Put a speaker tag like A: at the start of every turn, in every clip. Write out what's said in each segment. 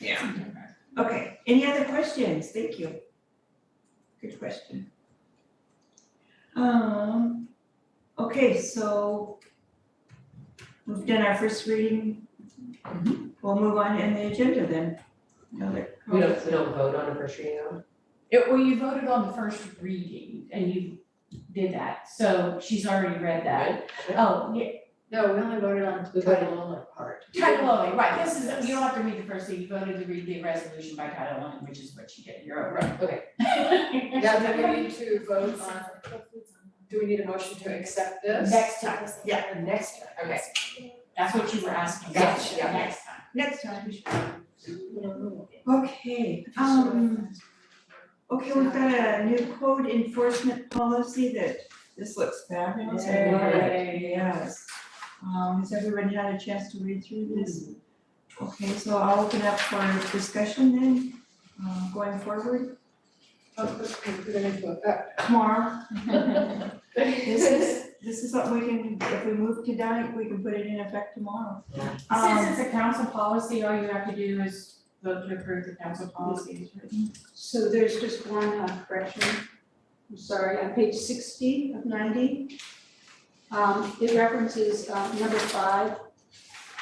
A: Yeah.
B: Okay, any other questions? Thank you. Good question. Um, okay, so we've done our first reading. We'll move on in the agenda then. No other
C: Mm-hmm. We don't,
B: comments?
C: we don't vote on a first reading though.
A: It, well, you voted on the first reading and you did that, so she's already read that. Oh, yeah,
D: No, we only voted on
C: We
D: the
C: voted
D: title only part.
A: title only, right, this is, you don't have to read the first thing, you voted to read the resolution by title only, which is what you did, you're right.
C: Okay.
D: Yeah, do we need to vote on, do we need a motion to accept this?
A: Next time,
C: Yeah, the next time, okay.
A: that's what you were asking,
C: Gotcha, yeah.
A: next time.
B: Next time. we should-
D: Yes.
B: Okay, um, okay, we've got a new code enforcement policy that this looks fabulous. Yes. Um, has everyone had a chance to read through this? Okay, so I'll open up for discussion then, um, going forward.
D: How quickly put it into effect?
B: Tomorrow, this is, this is what we can, if we move tonight, we can put it in effect tomorrow.
C: Yeah.
B: Um,
A: Since it's a council policy, all you have to do is vote to approve the council policy as written.
D: So there's just one uh, correction, I'm sorry, on page sixty of ninety. Um, it references, uh, number five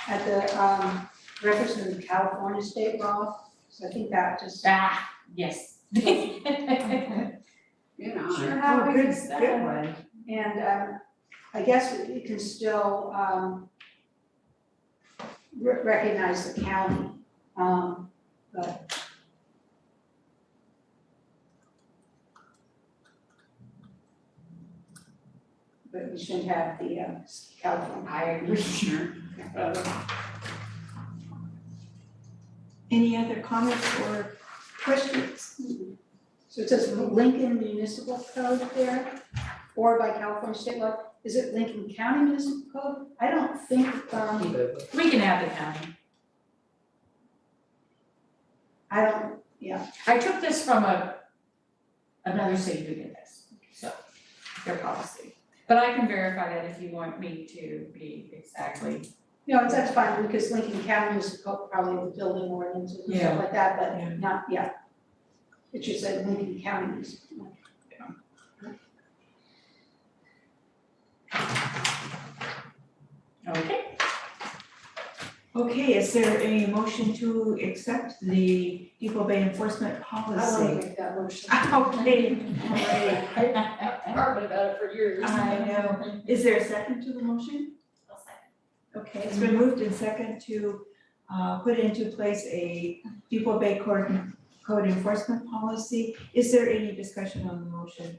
D: at the, um, reference to the California state law. So I think that just.
A: Ah, yes.
D: You
A: Sure, how
B: oh,
A: big
B: good,
A: is that?
B: good one.
D: And um, I guess it can still um, re- recognize the county, um, but. But we shouldn't have the uh, California.
A: I agree, sure.
B: Any other comments or questions?
D: So it says Lincoln Municipal Code there, or by California state law. Is it Lincoln County Municipal Code? I don't think, um,
C: We vote.
A: We can have the county.
D: I don't,
A: I took this from a, another city who did this, so, their policy. But I can verify that if you want me to be exactly.
D: No, it's- that's fine, because Lincoln County is co- probably the building ordinance and
A: Yeah.
D: stuff like that,
B: Yeah.
D: but not, yeah. It should say Lincoln County is.
A: Okay.
B: Okay, is there a motion to accept the Depot Bay enforcement policy?
D: make that motion.
B: Okay, all right.
C: Argued about it for years.
B: I know. Is there a second to the motion? Okay, it's been moved and second to uh put into place a Depot Bay Code code enforcement policy. Is there any discussion on the motion?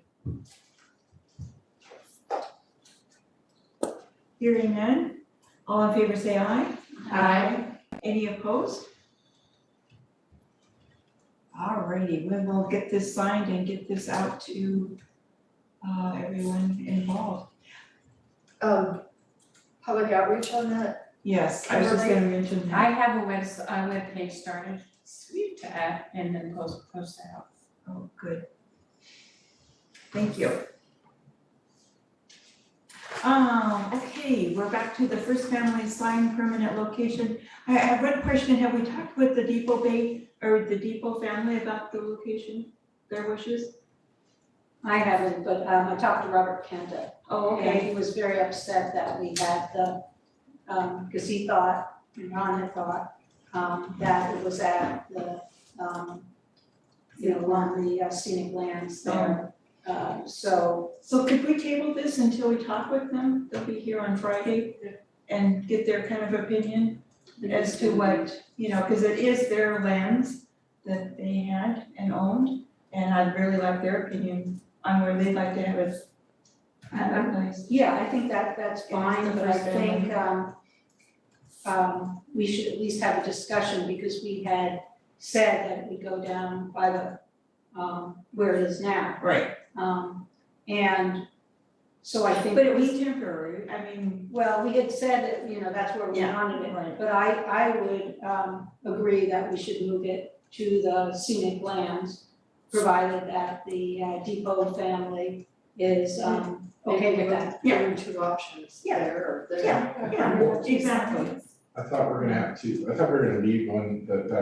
B: Hearing none, all in favor say aye.
A: Aye.
B: Any opposed? Alrighty, we will get this signed and get this out to uh everyone involved.
D: Um, public outreach on that?
B: Yes, I was just gonna mention that.
A: I have a webs, a webpage started, sweet to add, and then post, post that out.
B: Oh, good. Thank you. Um, okay, we're back to the first family sign permanent location. I I have one question, have we talked with the Depot Bay or the Depot family about the location, their wishes?
D: I haven't, but um, I talked to Robert Kenta.
B: Oh,
D: And he was very upset that we had the, um, because he thought, and Ron had thought, um, that it was at the, um, you know, along the uh, scenic lands there. Uh, so
B: So could we table this until we talk with them? They'll be here on Friday and get their kind of opinion as to what, you know, because it is their lands that they had and owned. And I'd really like their opinion on where they'd like to have it. advertised.
D: Yeah, I think that that's
B: Yeah, it's the
D: fine, but I
B: first thing.
D: think um um we should at least have a discussion because we had said that we go down by the um where it is now.
B: Right.
D: Um and so I think
B: But it was temporary, I mean,
D: well, we had said that, you know, that's where we
B: Yeah,
D: wanted it,
B: right.
D: but I I would um agree that we should move it to the scenic lands, provided that the uh, Depot family is um okay with that.
B: Yeah.
E: are two options
B: Yeah.
E: there or there.
B: yeah, yeah, exactly.
F: I thought we we're gonna have two, I thought we were gonna leave one, that, uh, that